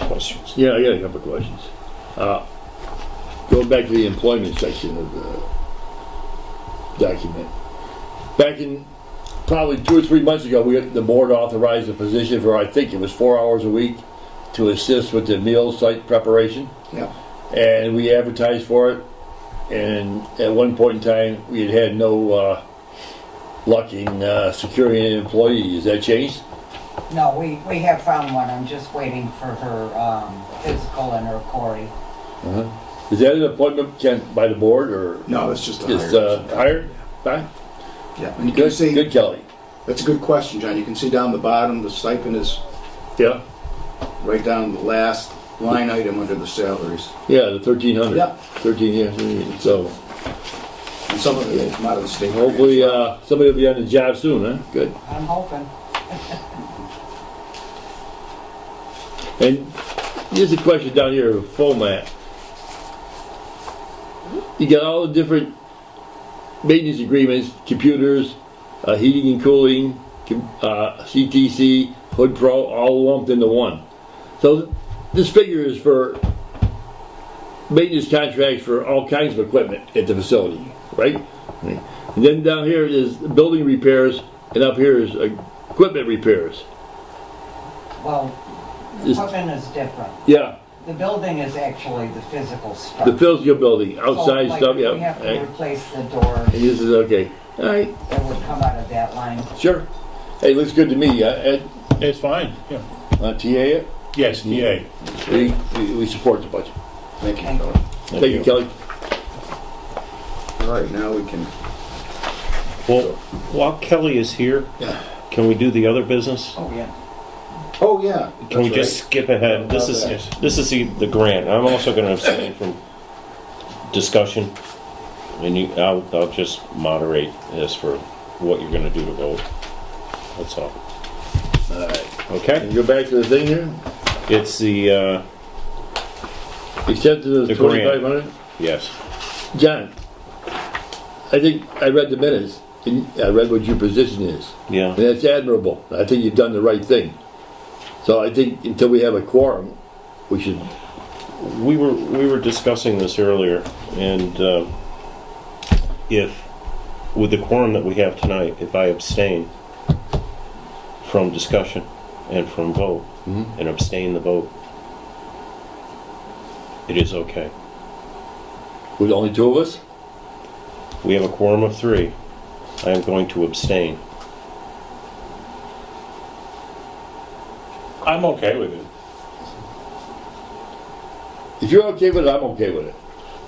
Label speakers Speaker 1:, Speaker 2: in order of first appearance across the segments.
Speaker 1: questions.
Speaker 2: Yeah, I got a couple of questions. Uh, Going back to the employment section of the document. Back in, probably two or three months ago, we, the board authorized a position for, I think it was four hours a week to assist with the meal site preparation,
Speaker 1: Yeah.
Speaker 2: and we advertised for it. And at one point in time, we had had no uh, luck in uh, securing an employee. Has that changed?
Speaker 3: No, we, we have found one, I'm just waiting for her, um, physical and her Cory.
Speaker 2: Is that an appointment can, by the board or?
Speaker 1: No, it's just a
Speaker 2: It's
Speaker 1: higher-
Speaker 2: uh, higher? Fine.
Speaker 1: Yeah, and you can
Speaker 2: Good,
Speaker 1: see,
Speaker 2: good Kelly.
Speaker 1: that's a good question, John. You can see down the bottom, the stipend is
Speaker 2: Yeah,
Speaker 1: right down the last line item under the salaries.
Speaker 2: yeah, the thirteen hundred.
Speaker 1: Yep.
Speaker 2: Thirteen, yeah, so
Speaker 1: And some of it come out of the state.
Speaker 2: hopefully, uh, somebody will be on the job soon, huh? Good.
Speaker 3: I'm hoping.
Speaker 2: And here's a question down here, format. You got all the different maintenance agreements, computers, uh, heating and cooling, com- uh, CTC, Hood Pro, all lumped into one. So this figure is for maintenance contracts for all kinds of equipment at the facility, right? And then down here is building repairs, and up here is uh, equipment repairs.
Speaker 3: Well, the
Speaker 2: Is-
Speaker 3: equipment is different.
Speaker 2: Yeah,
Speaker 3: The building is actually the physical stuff.
Speaker 2: the physical building,
Speaker 3: So,
Speaker 2: outside
Speaker 3: Oh, like,
Speaker 2: stuff,
Speaker 3: if
Speaker 2: yeah.
Speaker 3: We have
Speaker 2: right.
Speaker 3: to replace the door,
Speaker 2: And this is okay. All right,
Speaker 3: that would come out of that line.
Speaker 2: sure. Hey, looks good to me. Uh, Ed,
Speaker 4: It's fine, yeah.
Speaker 2: uh, TA, it?
Speaker 4: Yes,
Speaker 5: E
Speaker 4: DA.
Speaker 2: we, we- we support the budget.
Speaker 1: Thank you, Kelly.
Speaker 2: Thank you, Kelly.
Speaker 1: All right, now we can,
Speaker 4: Well, while Kelly is here,
Speaker 1: Yeah.
Speaker 4: can we do the other business?
Speaker 3: Oh, yeah.
Speaker 1: oh, yeah.
Speaker 4: Can we
Speaker 1: that's
Speaker 4: just skip ahead? This is, this is the the grant. I'm also gonna abstain from discussion. And you, I'll, I'll just moderate this for what you're gonna do to vote. That's all. Okay?
Speaker 2: And go back to the thing here.
Speaker 4: It's the, uh,
Speaker 2: Acceptance
Speaker 4: The
Speaker 2: of
Speaker 4: grant.
Speaker 2: twenty-five hundred.
Speaker 4: yes.
Speaker 2: John, I think I read the minutes. And I read what your position is.
Speaker 4: Yeah.
Speaker 2: And that's admirable. I think you've done the right thing. So I think until we have a quorum, we should,
Speaker 4: we were we were discussing this earlier, and um if with the quorum that we have tonight, if I abstain from discussion and from vote
Speaker 1: Mm-hmm.
Speaker 4: and abstain the vote, it is okay.
Speaker 2: with only two of us?
Speaker 4: We have a quorum of three. I am going to abstain.
Speaker 5: I'm okay with it.
Speaker 2: If you're okay with it, I'm okay with it.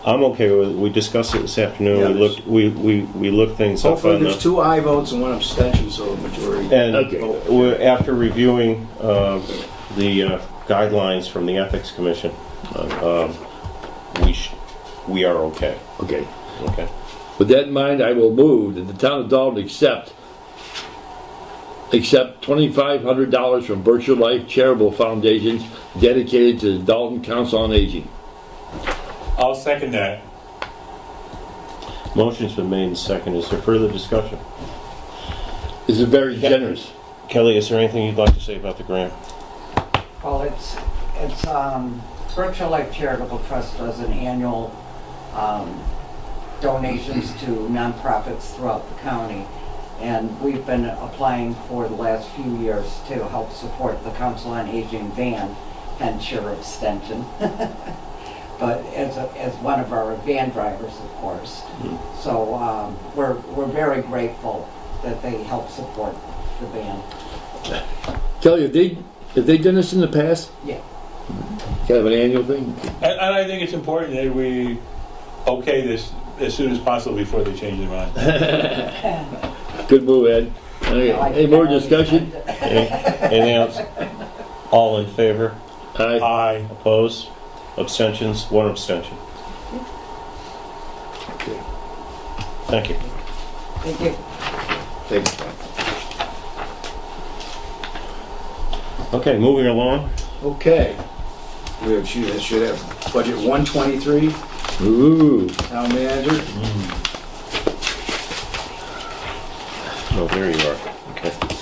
Speaker 4: I'm okay with. We discussed it this afternoon.
Speaker 1: Yeah,
Speaker 4: we looked. We, we we looked things up
Speaker 1: Hopefully,
Speaker 4: on the.
Speaker 1: there's two aye votes and one abstention, so a majority.
Speaker 4: And
Speaker 2: Okay.
Speaker 4: we're, after reviewing uh, the uh, guidelines from the Ethics Commission, um, we sh- we are okay.
Speaker 2: Okay.
Speaker 4: Okay.
Speaker 2: With that in mind, I will move that the town of Dalton accept, accept twenty-five hundred dollars from Berkshire Life Charitable Foundations dedicated to the Dalton Council on Aging.
Speaker 5: I'll second that.
Speaker 4: Motion's been made and seconded. Is there further discussion?
Speaker 2: This is very generous.
Speaker 4: Kelly, is there anything you'd like to say about the grant?
Speaker 3: Well, it's, it's, um, Berkshire Life Charitable Trust does an annual, um, donations to nonprofits throughout the county. And we've been applying for the last few years to help support the Council on Aging van, hence your abstention. But as, a- as one of our van drivers, of course.
Speaker 2: Mm-hmm.
Speaker 3: So, um, we're, we're very grateful that they help support the van.
Speaker 2: Kelly, have they, have they done this in the past?
Speaker 3: Yeah.
Speaker 2: Kind of an annual thing?
Speaker 5: And, and I think it's important that we okay this as soon as possible before they change their mind.
Speaker 2: Good move, Ed. Okay,
Speaker 3: I like
Speaker 2: Any more
Speaker 3: that.
Speaker 2: discussion?
Speaker 4: Any- Anything else? All in favor?
Speaker 2: Aye.
Speaker 5: Aye.
Speaker 4: Opposed? Abstentions? One abstention. Thank you.
Speaker 3: Thank you.
Speaker 1: Thank you.
Speaker 4: Okay, moving along.
Speaker 1: Okay. We have, should have- should have budget 123,
Speaker 2: Ooh,
Speaker 1: town manager.
Speaker 4: Oh, there you are. Okay.